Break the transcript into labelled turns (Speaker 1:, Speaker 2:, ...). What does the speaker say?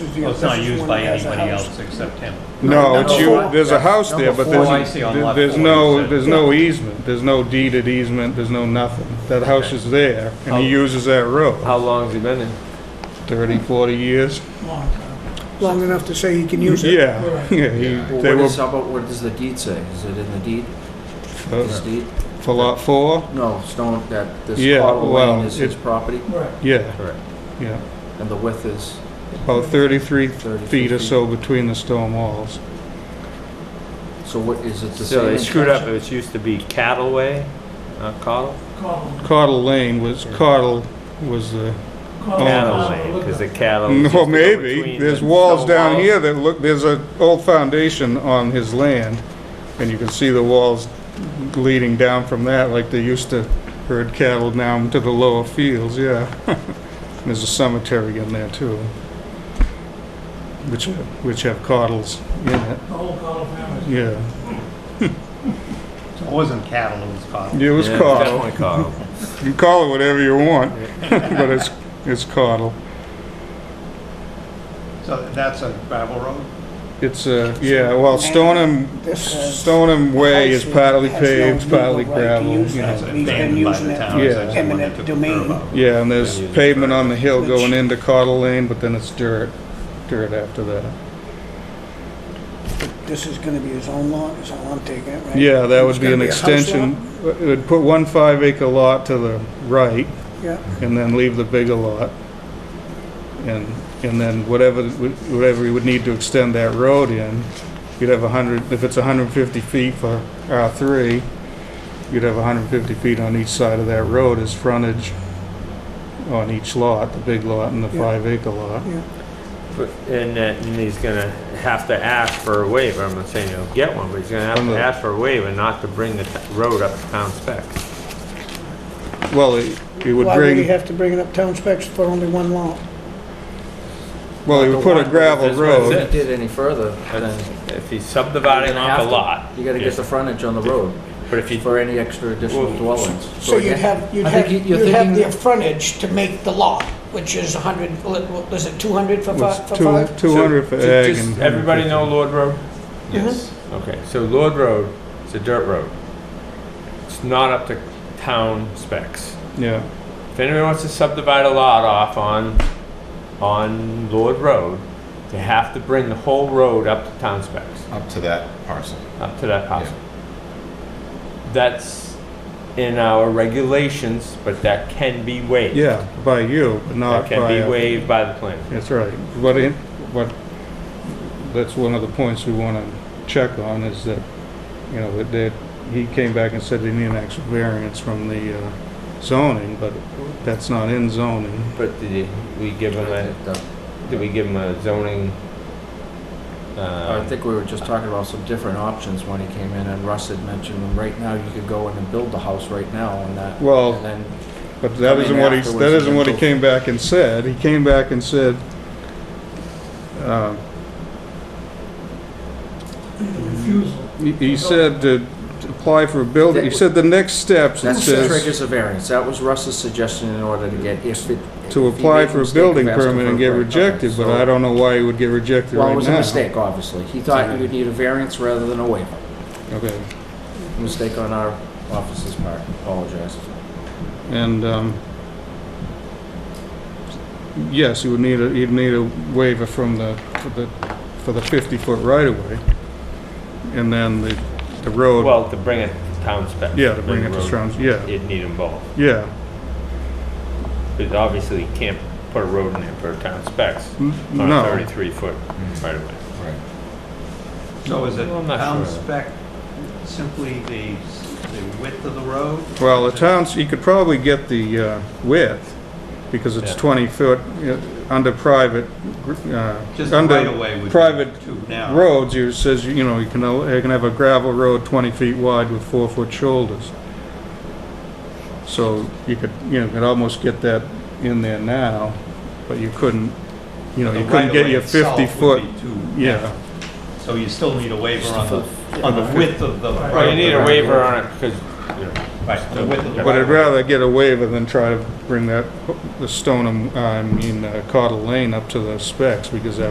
Speaker 1: anything
Speaker 2: Well,
Speaker 1: else.
Speaker 2: Oh, It's not
Speaker 1: This is
Speaker 2: used
Speaker 1: one
Speaker 2: by
Speaker 1: that has a
Speaker 2: anybody
Speaker 1: house.
Speaker 2: else except him.
Speaker 3: No, it's you,
Speaker 1: four.
Speaker 3: there's a house there, but
Speaker 2: Number
Speaker 3: there's,
Speaker 2: four. I see on lot
Speaker 3: there's
Speaker 2: four, you
Speaker 3: no,
Speaker 2: said.
Speaker 3: there's no easement, there's no deeded easement, there's no nothing. That house is there, and he uses that road,
Speaker 4: How long's he been in?
Speaker 3: 30, 40 years.
Speaker 1: Long enough to say he can use it.
Speaker 3: Yeah, yeah, he,
Speaker 5: Well,
Speaker 3: they
Speaker 5: what
Speaker 3: were
Speaker 5: is, how about, what does the deed say? Is it in the deed, this
Speaker 3: for-
Speaker 5: deed?
Speaker 3: for lot four,
Speaker 5: No, Stone, that, this
Speaker 3: Yeah,
Speaker 5: Cottle
Speaker 3: well,
Speaker 5: Lane is his
Speaker 3: it-
Speaker 5: property?
Speaker 3: yeah,
Speaker 5: Correct.
Speaker 3: yeah.
Speaker 5: And the width is,
Speaker 3: About 33
Speaker 5: 33
Speaker 3: feet or
Speaker 5: feet.
Speaker 3: so between the stone walls.
Speaker 5: so what, is it the same?
Speaker 4: So they screwed up,
Speaker 5: intention?
Speaker 4: it used to be Cattle Way, not Cottle?
Speaker 3: Caudle Lane was, Caudle was the,
Speaker 2: Oh,
Speaker 4: Cattle Way, because the cattle. used to
Speaker 3: well,
Speaker 4: go
Speaker 3: maybe,
Speaker 4: between
Speaker 3: there's
Speaker 4: the
Speaker 3: walls
Speaker 4: stone
Speaker 3: down
Speaker 4: walls.
Speaker 3: here that look, there's an old foundation on his land, and you can see the walls leading down from that, like they used to herd cattle down to the lower fields, yeah. And There's a cemetery in there too, which, which have caudles in it,
Speaker 6: The whole Cottle family.
Speaker 3: yeah.
Speaker 2: So It wasn't cattle, it was cotton.
Speaker 3: It was
Speaker 4: Yeah,
Speaker 3: caudal.
Speaker 4: Definitely Cottle.
Speaker 3: You can call it whatever you want, but it's, it's caudal.
Speaker 2: So that's a gravel road?
Speaker 3: It's a, yeah, well, Stoneham,
Speaker 1: This is-
Speaker 3: Stoneham Way is
Speaker 1: Actually,
Speaker 3: partly
Speaker 1: has no
Speaker 3: paved,
Speaker 1: legal
Speaker 3: partly
Speaker 1: right to
Speaker 3: gravel,
Speaker 1: use
Speaker 3: you
Speaker 1: that.
Speaker 2: That's
Speaker 3: know.
Speaker 1: We've been
Speaker 2: abandoned by
Speaker 1: using
Speaker 2: the
Speaker 1: that
Speaker 2: town.
Speaker 3: Yeah.
Speaker 2: It's actually one that
Speaker 1: eminent
Speaker 2: took
Speaker 1: domain.
Speaker 2: care of it.
Speaker 3: Yeah, and there's
Speaker 4: Then you-
Speaker 3: pavement on the hill going
Speaker 1: Which-
Speaker 3: into Caudle Lane, but then it's dirt, dirt after that.
Speaker 1: This is gonna be his own lot, is how I'm taking it, right?
Speaker 3: Yeah, that
Speaker 1: It's
Speaker 3: would be
Speaker 1: gonna
Speaker 3: an
Speaker 1: a house
Speaker 3: extension.
Speaker 1: lot?
Speaker 3: It would put one five acre lot to the right
Speaker 1: Yeah,
Speaker 3: and then leave the bigger lot. And, and then whatever, whatever you would need to extend that road in, you'd have a hundred, if it's hundred and fifty feet for R three, you'd have hundred and fifty feet on each side of that road as frontage on each lot, the big lot and the
Speaker 1: Yeah.
Speaker 3: five acre lot.
Speaker 1: yeah.
Speaker 4: But- And that, and he's gonna have to ask for a waiver, I'm not saying he'll get one, but he's gonna have
Speaker 3: From
Speaker 4: to
Speaker 3: the-
Speaker 4: ask for a waiver not to bring the t- road up to town specs.
Speaker 3: Well, it, it would
Speaker 1: Why would he
Speaker 3: bring,
Speaker 1: have to bring it up town specs for only one lot?
Speaker 3: well, it would put a gravel
Speaker 4: That's what it
Speaker 3: road.
Speaker 4: said.
Speaker 5: If you did any further, then
Speaker 4: That's- If he's
Speaker 5: you're
Speaker 4: subdividing
Speaker 5: gonna
Speaker 4: off
Speaker 5: have
Speaker 4: a
Speaker 5: to-
Speaker 4: lot,
Speaker 5: You gotta get the frontage on the road
Speaker 4: but if you,
Speaker 5: for any extra additional
Speaker 4: Well,
Speaker 5: dwellings.
Speaker 7: So you'd
Speaker 5: again-
Speaker 7: have, you'd
Speaker 5: I
Speaker 7: have,
Speaker 5: think you- you're
Speaker 7: you'd have
Speaker 5: thinking-
Speaker 7: the frontage to make the lot, which is 100, was it 200 for fi- for five?
Speaker 3: Two hundred for
Speaker 4: So, ju-
Speaker 3: ag
Speaker 4: just
Speaker 3: and.
Speaker 4: Everybody know Lord Road?
Speaker 8: Mm-hmm.
Speaker 7: Yes.
Speaker 4: Okay, so Lord Road, it's a dirt road. It's not up to town specs.
Speaker 3: Yeah.
Speaker 4: If anyone wants to subdivide a lot off on, on Lord Road, they have to bring the whole road up to town specs,
Speaker 8: up to that parcel.
Speaker 4: up to that house. That's in our regulations, but that can be waived.
Speaker 3: Yeah, uh, by you, but
Speaker 4: That
Speaker 3: not by.
Speaker 4: can be
Speaker 3: a-
Speaker 4: waived by the plan.
Speaker 3: That's right. What, in- what, that's one of the points we want to check on is that, you know, that, that he came back and said he needed an actual variance from the uh, zoning, but that's not in zoning.
Speaker 4: But did we give them a,
Speaker 5: uh,
Speaker 4: did we give them a zoning?
Speaker 5: I
Speaker 4: um,
Speaker 5: think we were just talking about some different options when he came in, and Russ had mentioned, them. right now, you could go in and build the house right now on that.
Speaker 3: Well-
Speaker 5: And then
Speaker 3: But that
Speaker 5: Coming
Speaker 3: isn't what he, that
Speaker 5: afterwards,
Speaker 3: isn't what he
Speaker 5: mental-
Speaker 3: came back and said. He came back and said, um,
Speaker 6: Refusal.
Speaker 3: he, he said to to apply for a building, he said the next steps, it
Speaker 5: That's the
Speaker 3: says,
Speaker 5: triggers a variance. That was Russ's suggestion in order to get, if it.
Speaker 3: to
Speaker 5: if he
Speaker 3: apply
Speaker 5: made
Speaker 3: for a
Speaker 5: mistake of
Speaker 3: building
Speaker 5: asking
Speaker 3: permit
Speaker 5: for
Speaker 3: and
Speaker 5: a
Speaker 3: get
Speaker 5: variance.
Speaker 3: rejected,
Speaker 5: Okay,
Speaker 3: but
Speaker 5: so-
Speaker 3: I don't know why he would get rejected right now.
Speaker 5: Well, it was a mistake, obviously. He thought you would need a variance rather than a waiver.
Speaker 3: Okay.
Speaker 5: Mistake on our office's part. Apologize.
Speaker 3: And, um, yes, you would need a, you'd need a waiver from the, for the, for the 50-foot right-of-way. And then the, the road,
Speaker 4: Well, to bring it to town specs.
Speaker 3: yeah, to bring it to
Speaker 4: road,
Speaker 3: Strong's, yeah,
Speaker 4: It'd need them both.
Speaker 3: yeah.
Speaker 4: But obviously, you can't put a road in there for town specs
Speaker 3: N-
Speaker 4: on a
Speaker 3: Mm, No,
Speaker 4: thirty-three foot right of way.
Speaker 2: So is it
Speaker 4: Well, I'm not
Speaker 2: town
Speaker 4: sure.
Speaker 2: spec simply the, the width of the road?
Speaker 3: well, the town's, you could probably get the uh, width, because it's
Speaker 4: Yeah.
Speaker 3: 20 foot, uh, under private, uh,
Speaker 2: Just the right
Speaker 3: under
Speaker 2: away would be
Speaker 3: private
Speaker 2: two now.
Speaker 3: roads, you says, you know, you can, al- you can have a gravel road 20 feet wide with four-foot shoulders. So you could, you know, could almost get that in there now, but you couldn't, you know,
Speaker 2: The
Speaker 3: you couldn't get
Speaker 2: right-of-way
Speaker 3: your
Speaker 2: itself
Speaker 3: 50
Speaker 2: would
Speaker 3: foot,
Speaker 2: be two
Speaker 3: yeah.
Speaker 2: now. So you still need a waiver on the, on the width of the.
Speaker 4: Well, you need a
Speaker 2: right-of-way.
Speaker 4: waiver on it because, you know,
Speaker 2: Right, the width of the.
Speaker 3: But I'd
Speaker 2: right-of-way.
Speaker 3: rather get a waiver than um, try to bring that, the Stoneham, I mean, uh, Caudle Lane up to the specs, because that